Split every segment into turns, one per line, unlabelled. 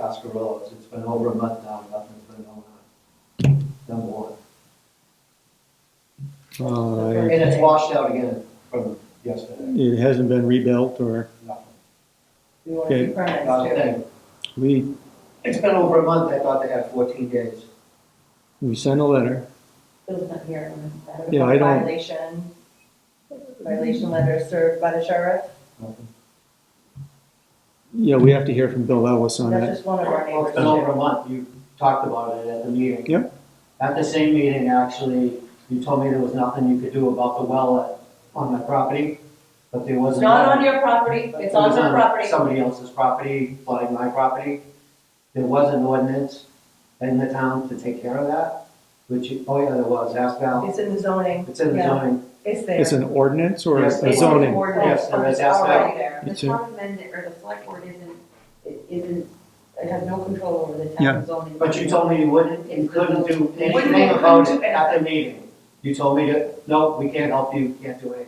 Oscar Rose. It's been over a month now, nothing's been going on. Number one.
Uh,
And it's washed out again from yesterday,
It hasn't been rebuilt or,
nothing.
We want to keep our next
Not a
year.
thing.
we,
It's been over a month, I thought they had fourteen days.
we sent a letter.
Bill's not here. I'm gonna-
Yeah, I don't-
Violation, violation letter served by the sheriff.
Nothing.
Yeah, we have to hear from Bill Ellis on
That's
that.
just one of our
Well,
neighbors.
it's been over a month, you talked about it at the meeting.
Yep.
At the same meeting, actually, you told me there was nothing you could do about the well at- on my property, but there was.
It's
a-
not on your property,
It
it's on
was
her property.
Somebody else's property, flooding my property. There was an ordinance in the town to take care of that, which, you- oh yeah, there was, ask Val.
It's in the zoning,
It's in the
Yeah.
zoning,
it's there.
It's an ordinance or
Yes,
a
it's-
zoning?
Yes, there is,
It's
that's
already there.
The
It's a-
town amendment, or the select board isn't, it isn't, it has no control over the
Yeah.
town zoning.
but you told me you wouldn't, you couldn't do
Wouldn't
anything
do
about it
anything.
at the meeting. You told me to, no, we can't help you, you can't do anything.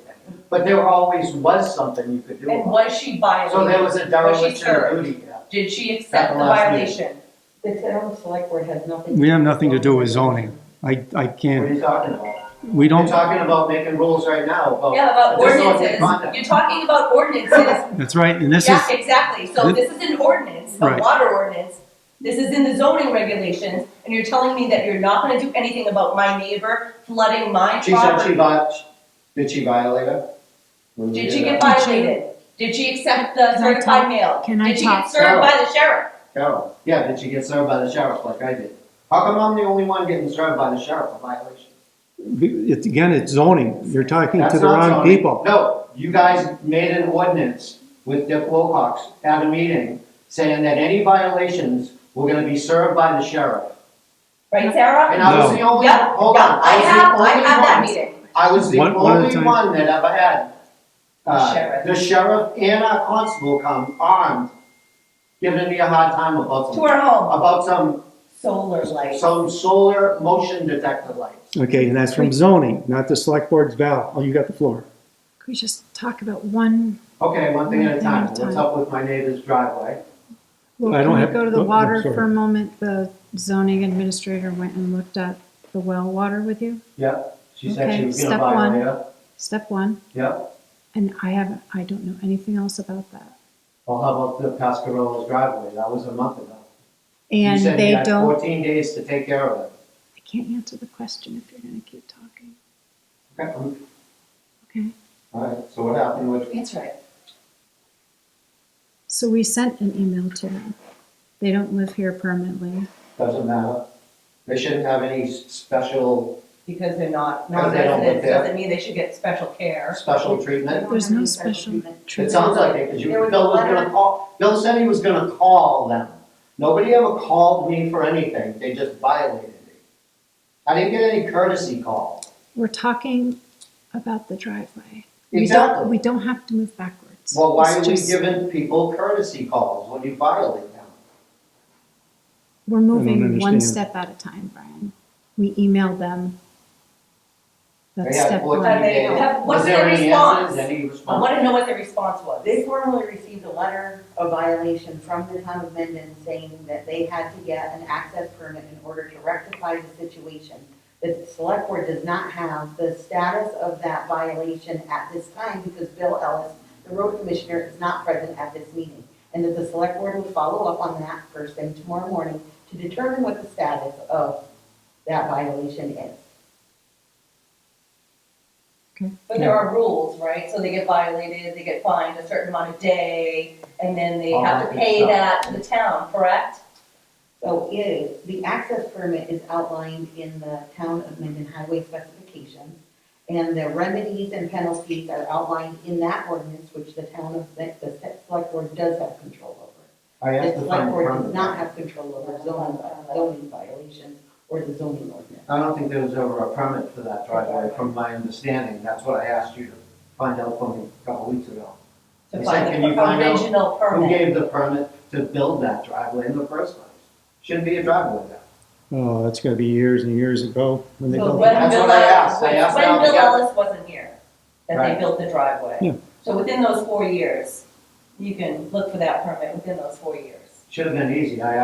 But there always was something you could do
And
about
was she
it. So there
violated?
was a dereliction of
served?
duty. yeah.
Did she
At
accept
the
the
last
violation?
The town select board has nothing.
We have nothing to do with zoning. I, I
What are
can't,
you talking about?
we
You're
don't,
talking about making rules right now about.
Yeah, about
But there's no
ordinances.
conduct.
You're talking about ordinances.
that's right, and this is,
Yeah, exactly. So this is an ordinance, a
Right.
water ordinance. This is in the zoning regulations, and you're telling me that you're not gonna do anything about my neighbor flooding my
She said she
property?
vi, did she violate it? When we
Did she
that?
get violated? Did she accept the
Can I
certified mail?
Can I
Did she get
talk?
served by the sheriff?
Carol, yeah, did she get served by the sheriff like I did? How come I'm the only one getting served by the sheriff for violation?
it's, again, it's zoning. You're talking
That's
to the
not
wrong
zoning.
people.
No, you guys made an ordinance with Dick Wilcox at a meeting saying that any violations were gonna be served by the sheriff.
Right, Sarah?
And I was
No.
the only,
Yep,
hold
yep.
on,
I
I was the
have, I
only
have that
one-
meeting.
I was the
One- one at a
only
time.
one that ever had, uh,
Sheriff.
the sheriff and our constable come armed, giving me a hard time about
To
some,
her home,
about some
solar light.
Some solar motion detector lights.
Okay, and that's from zoning, not the select board's Val. Oh, you got the floor.
Could we just talk about one?
Okay, one thing at a time. What's
Time.
up with my neighbor's driveway?
Well,
I
can
don't
we
have-
Go to
oh,
the
I'm
water
sorry.
for a moment. The zoning administrator went and looked at the well water with you,
Yep, she said she
Okay,
was gonna
step
violate
one.
it.
step one.
Yep,
And I haven't, I don't know anything else about that.
well, how about the Pascarola's driveway? That was a month ago. You
And
said you
they
had
don't,
Fourteen days to take care of it.
I can't answer the question if you're gonna keep talking,
Okay, um,
okay?
all right, so what happened with,
That's right.
So we sent an email to them. They don't live here permanently.
doesn't matter. They shouldn't have any s- special,
Because they're not,
Because they don't live
non-residents,
there.
doesn't mean they should get special care.
special treatment.
There's no special
It
treatment.
sounds like it, because you,
There was a
Bill was gonna
letter.
call, Bill said he was gonna call them. Nobody ever called me for anything, they just violated me. I didn't get any courtesy call.
We're talking about the driveway. We don't, we
Exactly.
don't have to move backwards.
Well, why
It's
are we
just-
giving people courtesy calls when you violate them?
We're moving one
understand.
step at a time, Brian. We emailed them.
They
That's
had
step
14
Have
one.
they-
days.
have-
Was
what's
there
their
any
response?
answers, any
I
response?
want to know what the response was.
They formally received a letter of violation from the town of Mendon saying that they had to get an access permit in order to rectify the situation. The select board does not have the status of that violation at this time because Bill Ellis, the road commissioner, is not present at this meeting. And that the select board will follow up on that first thing tomorrow morning to determine what the status of that violation is.
But there are rules, right? So they get violated, they get fined a certain amount a day, and then they
All
have
that
to
good
pay
stuff.
that to the town, correct?
So it is, the access permit is outlined in the town of Mendon highway specifications. And the remedies and penalties are outlined in that ordinance, which the town of, that the select board does have control over.
I asked
The
to
select
find
board does not
permit.
have control over zoning, vi- zoning violations or the zoning ordinance.
I don't think there was ever a permit for that driveway, from my understanding. That's what I asked you to find out for me a couple weeks ago.
To
It's
find
like, can you
the
find out
original
Who
permit.
gave the permit to build that driveway in the first place? Shouldn't be a driveway there.
Oh, that's gotta be years and years ago when they
So
built
when
it.
That's
Bill
what I
Ellis-
asked. I asked
When
Al to
Bill
get-
Ellis wasn't here, that they
Right.
built the
Yeah.
driveway. So within those four years, you can look for that permit within those four years.
Should have been easy. I